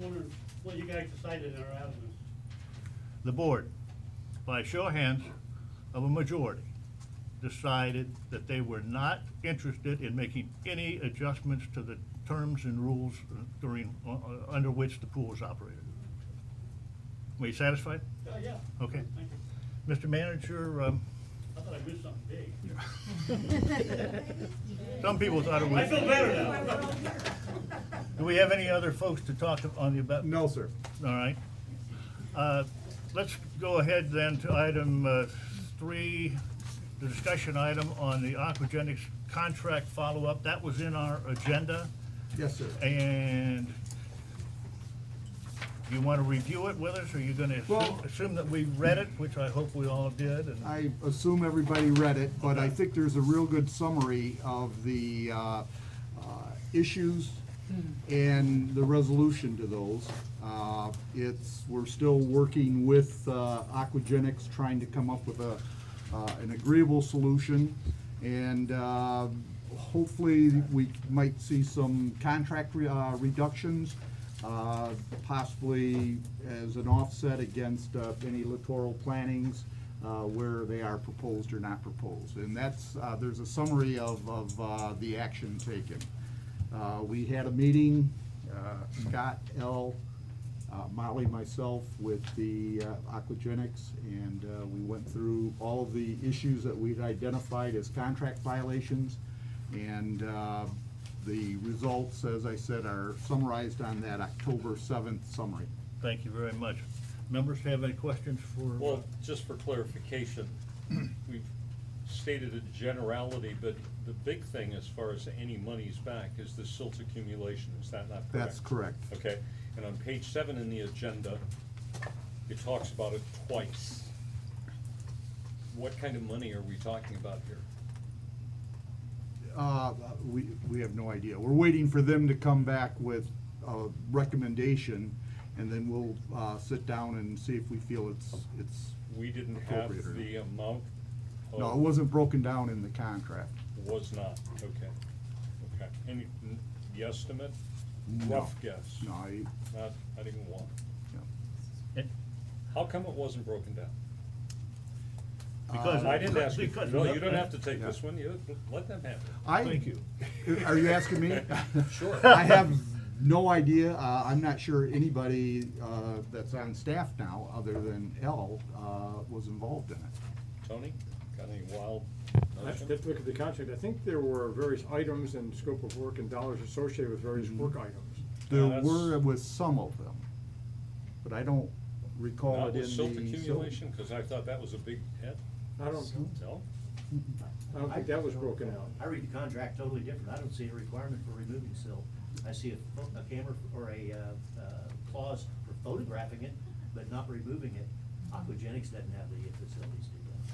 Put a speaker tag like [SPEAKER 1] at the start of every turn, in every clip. [SPEAKER 1] wondering what you guys decided in our avenues.
[SPEAKER 2] the board, by a show of hands of a majority, decided that they were not interested in making any adjustments to the terms and rules during, uh, uh, under which the pool is operated. Were you satisfied?
[SPEAKER 1] Oh, yeah.
[SPEAKER 2] Okay.
[SPEAKER 1] Thank you.
[SPEAKER 2] Mr. Manager, um,
[SPEAKER 1] I thought I missed something big.
[SPEAKER 2] some people thought it
[SPEAKER 1] I feel
[SPEAKER 2] was,
[SPEAKER 1] better now.
[SPEAKER 2] do we have any other folks to talk to on the, about?
[SPEAKER 3] No, sir.
[SPEAKER 2] All right. Uh, Let's go ahead then to item uh, three, the discussion item on the Aquagenics contract follow-up. That was in our agenda,
[SPEAKER 3] Yes, sir.
[SPEAKER 2] and you want to review it with us, or you're going
[SPEAKER 3] Well-
[SPEAKER 2] to assume that we read it, which I hope we all did, and
[SPEAKER 3] I assume everybody read it, but I think there's a real good summary of the uh, uh, issues and the resolution to those. Uh, It's, we're still working with uh, Aquagenics, trying to come up with a, uh, an agreeable solution. And uh, hopefully, we might see some contract re- uh, reductions, uh, possibly as an offset against uh, any littoral plantings uh, where they are proposed or not proposed. And that's, uh, there's a summary of, of uh, the action taken. Uh, We had a meeting, uh, Scott L., uh, Molly, myself, with the uh, Aquagenics, and uh, we went through all of the issues that we'd identified as contract violations. And uh, the results, as I said, are summarized on that October 7th summary.
[SPEAKER 2] thank you very much. Members have any questions for,
[SPEAKER 4] Well, just for clarification, we've stated a generality, but the big thing as far as any monies back is the silt accumulation, is that not correct?
[SPEAKER 3] That's correct.
[SPEAKER 4] Okay, and on page seven in the agenda, it talks about it twice. What kind of money are we talking about here?
[SPEAKER 3] Uh, We, we have no idea. We're waiting for them to come back with a recommendation, and then we'll uh, sit down and see if we feel it's, it's,
[SPEAKER 4] We didn't have
[SPEAKER 3] Appropriate or
[SPEAKER 4] the amount of.
[SPEAKER 3] no, it wasn't broken down in the contract.
[SPEAKER 4] Was not, okay, okay. Any, the estimate?
[SPEAKER 3] No.
[SPEAKER 4] Rough guess,
[SPEAKER 3] No, I,
[SPEAKER 4] not, not even one.
[SPEAKER 3] no.
[SPEAKER 4] How come it wasn't broken down?
[SPEAKER 2] because.
[SPEAKER 4] I
[SPEAKER 3] Uh,
[SPEAKER 4] didn't ask you,
[SPEAKER 2] because-
[SPEAKER 4] no, you don't have to take
[SPEAKER 3] Yeah.
[SPEAKER 4] this one, you, let them have it.
[SPEAKER 3] I-
[SPEAKER 2] Thank you.
[SPEAKER 3] Are you asking me?
[SPEAKER 4] Sure.
[SPEAKER 3] I have no idea. Uh, I'm not sure anybody uh, that's on staff now, other than L, uh, was involved in it.
[SPEAKER 4] Tony, got any wild
[SPEAKER 5] I have
[SPEAKER 4] notion?
[SPEAKER 5] to look at the contract. I think there were various items and scope of work and dollars associated with various work items.
[SPEAKER 4] No,
[SPEAKER 3] There
[SPEAKER 4] that's-
[SPEAKER 3] were with some of them, but I don't recall it
[SPEAKER 4] Not
[SPEAKER 3] in the.
[SPEAKER 4] with silt
[SPEAKER 3] so-
[SPEAKER 4] accumulation, cause I thought that was a big hit,
[SPEAKER 5] I don't,
[SPEAKER 4] no?
[SPEAKER 5] I don't think that was broken out.
[SPEAKER 6] I read the contract totally different. I don't see a requirement for removing silt. I see a, pho- a camera or a, uh, uh, clause for photographing it, but not removing it. Aquagenics doesn't have the facilities to do that.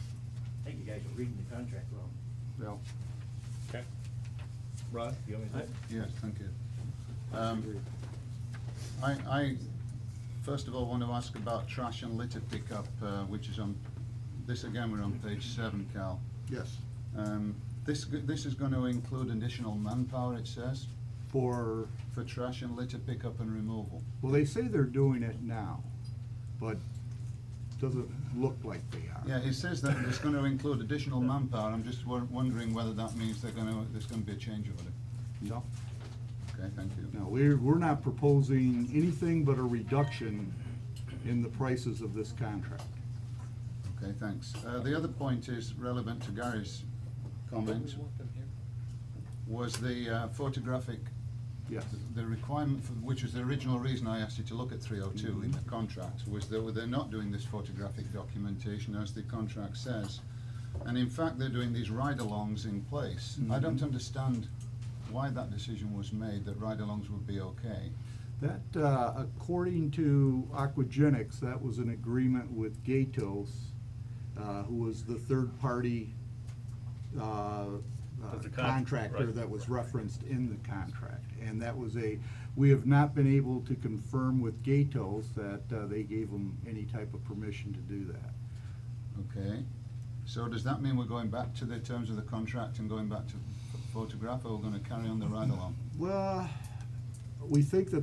[SPEAKER 6] I think you guys are reading the contract wrong.
[SPEAKER 3] Yeah.
[SPEAKER 4] Okay,
[SPEAKER 2] Rod, you have anything?
[SPEAKER 7] Yes, thank you. Um, I, I first of all want to ask about trash and litter pickup, uh, which is on, this again, we're on page seven, Cal.
[SPEAKER 3] Yes,
[SPEAKER 7] Um, This, g- this is going to include additional manpower, it says,
[SPEAKER 3] for,
[SPEAKER 7] for trash and litter pickup and removal.
[SPEAKER 3] well, they say they're doing it now, but doesn't look like they are.
[SPEAKER 7] Yeah, it says that it's going to include additional manpower. I'm just won- wondering whether that means they're going to, there's going to be a change order.
[SPEAKER 3] No.
[SPEAKER 7] Okay, thank you.
[SPEAKER 3] No, we're, we're not proposing anything but a reduction in the prices of this contract.
[SPEAKER 7] Okay, thanks. Uh, The other point is relevant to Gary's comment, was the uh, photographic,
[SPEAKER 3] Yes,
[SPEAKER 7] the requirement, for- which was the original reason I asked you to look at 302 in the contract, was that they're not doing this photographic documentation as the contract says. And in fact, they're doing these ride-alongs in place. I don't understand why that decision was made, that ride-alongs would be okay.
[SPEAKER 3] that, uh, according to Aquagenics, that was an agreement with Gatos, uh, who was the third party, uh, uh,
[SPEAKER 2] Of the con-
[SPEAKER 3] contractor
[SPEAKER 2] right.
[SPEAKER 3] that was referenced in the contract. And that was a, we have not been able to confirm with Gatos that, uh, they gave them any type of permission to do that.
[SPEAKER 7] Okay, so does that mean we're going back to the terms of the contract and going back to photograph, or we're gonna carry on the ride-along?
[SPEAKER 3] Well, we think that